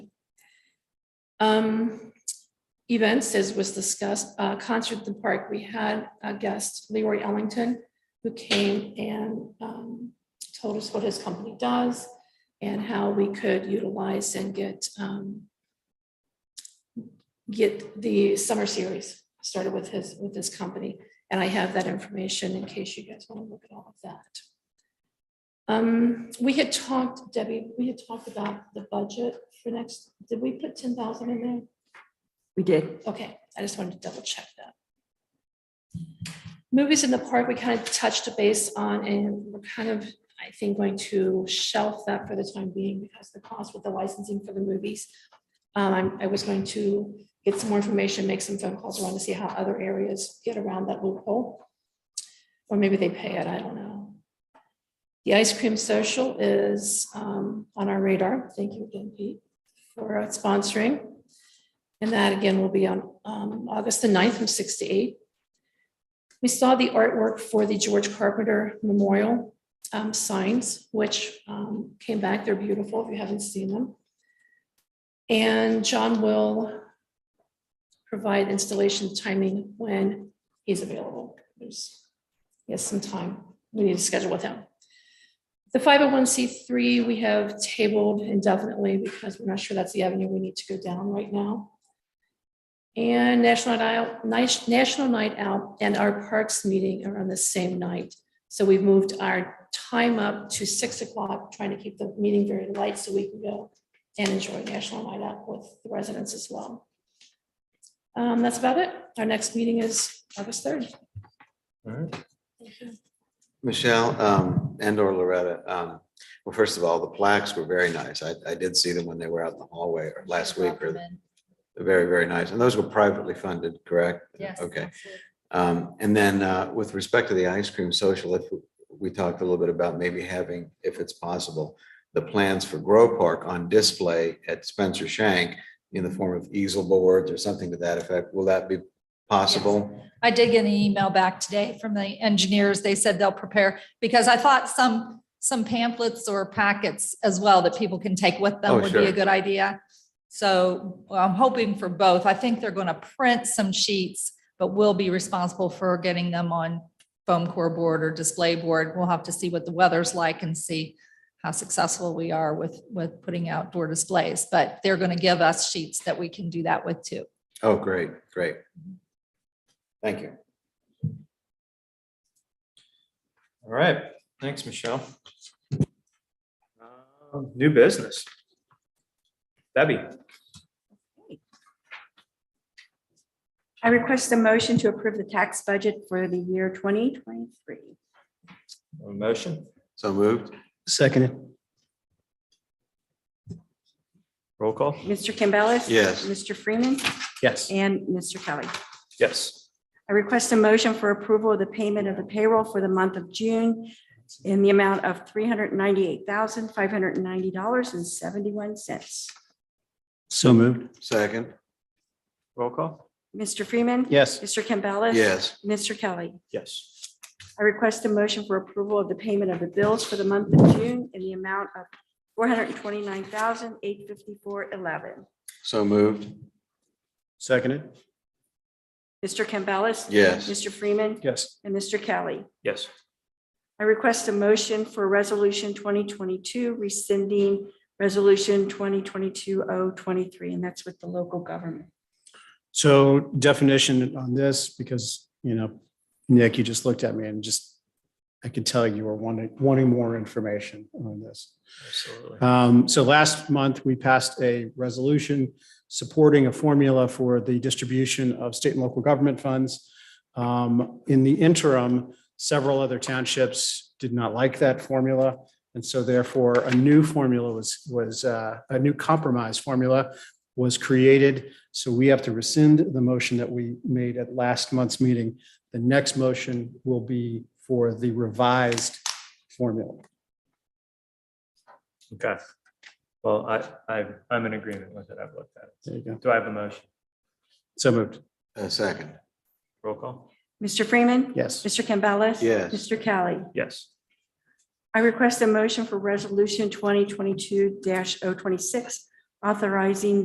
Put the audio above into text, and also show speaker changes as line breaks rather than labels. Um, Events, as was discussed, uh, concert at the park, we had a guest, Leroy Ellington, who came and um, told us what his company does and how we could utilize and get um, get the summer series started with his, with his company. And I have that information in case you guys want to look at all of that. Um, we had talked, Debbie, we had talked about the budget for next, did we put ten thousand in there?
We did.
Okay, I just wanted to double check that. Movies in the park, we kind of touched base on and we're kind of, I think, going to shelf that for the time being because the cost with the licensing for the movies. Um, I'm- I was going to get some more information, make some phone calls around to see how other areas get around that loophole. Or maybe they pay it, I don't know. The ice cream social is um, on our radar. Thank you again, Pete, for sponsoring. And that again will be on um, August the 9th from six to eight. We saw the artwork for the George Carpenter Memorial um, signs, which um, came back. They're beautiful if you haven't seen them. And John will provide installation timing when he's available. There's, he has some time. We need to schedule with him. The 501c3 we have tabled indefinitely because we're not sure that's the avenue we need to go down right now. And National Night Out, Nice- National Night Out and our Parks meeting are on the same night. So we've moved our time up to six o'clock, trying to keep the meeting very light so we can go and enjoy National Night Out with the residents as well. Um, That's about it. Our next meeting is August 3rd.
All right. Michelle um, and or Loretta, um, well, first of all, the plaques were very nice. I, I did see them when they were out in the hallway or last week or very, very nice. And those were privately funded, correct?
Yes.
Okay.
absolutely.
Um, and then, uh, with respect to the ice cream social, if we talked a little bit about maybe having, if it's possible, the plans for Grow Park on display at Spencer Shank in the form of easel boards or something to that effect. Will that be possible?
I did get an email back today from the engineers. They said they'll prepare, because I thought some, some pamphlets or packets as well that people can take with
Oh,
them would be
sure.
a good idea. So well, I'm hoping for both. I think they're going to print some sheets, but we'll be responsible for getting them on foam core board or display board. We'll have to see what the weather's like and see how successful we are with, with putting outdoor displays. But they're going to give us sheets that we can do that with too.
Oh, great, great. Thank you.
All right, thanks, Michelle. Um, New business. Debbie,
I request a motion to approve the tax budget for the year 2023.
a motion,
So moved?
Seconded.
roll call?
Mr. Campbellis.
Yes.
Mr. Freeman
Yes.
and Mr. Kelly.
Yes.
I request a motion for approval of the payment of the payroll for the month of June in the amount of $398,590.71.
So moved.
Second?
Roll call?
Mr. Freeman.
Yes.
Mr. Campbellis.
Yes.
Mr. Kelly.
Yes.
I request a motion for approval of the payment of the bills for the month of June in the amount of $429,854.11.
So moved?
Seconded.
Mr. Campbellis.
Yes.
Mr. Freeman
Yes.
and Mr. Kelly.
Yes.
I request a motion for Resolution 2022 rescinding Resolution 2022-023, and that's with the local government.
So definition on this, because, you know, Nick, you just looked at me and just, I could tell you were wanting, wanting more information on this.
Absolutely.
Um, So last month, we passed a resolution supporting a formula for the distribution of state and local government funds. Um, In the interim, several other townships did not like that formula. And so therefore, a new formula was, was, uh, a new compromise formula was created. So we have to rescind the motion that we made at last month's meeting. The next motion will be for the revised formula.
Okay. Well, I, I, I'm in agreement with it. I've looked at
There you go.
it. Do I have a motion?
So moved.
A second?
Roll call?
Mr. Freeman.
Yes.
Mr. Campbellis.
Yes.
Mr. Kelly.
Yes.
I request a motion for Resolution 2022-026 authorizing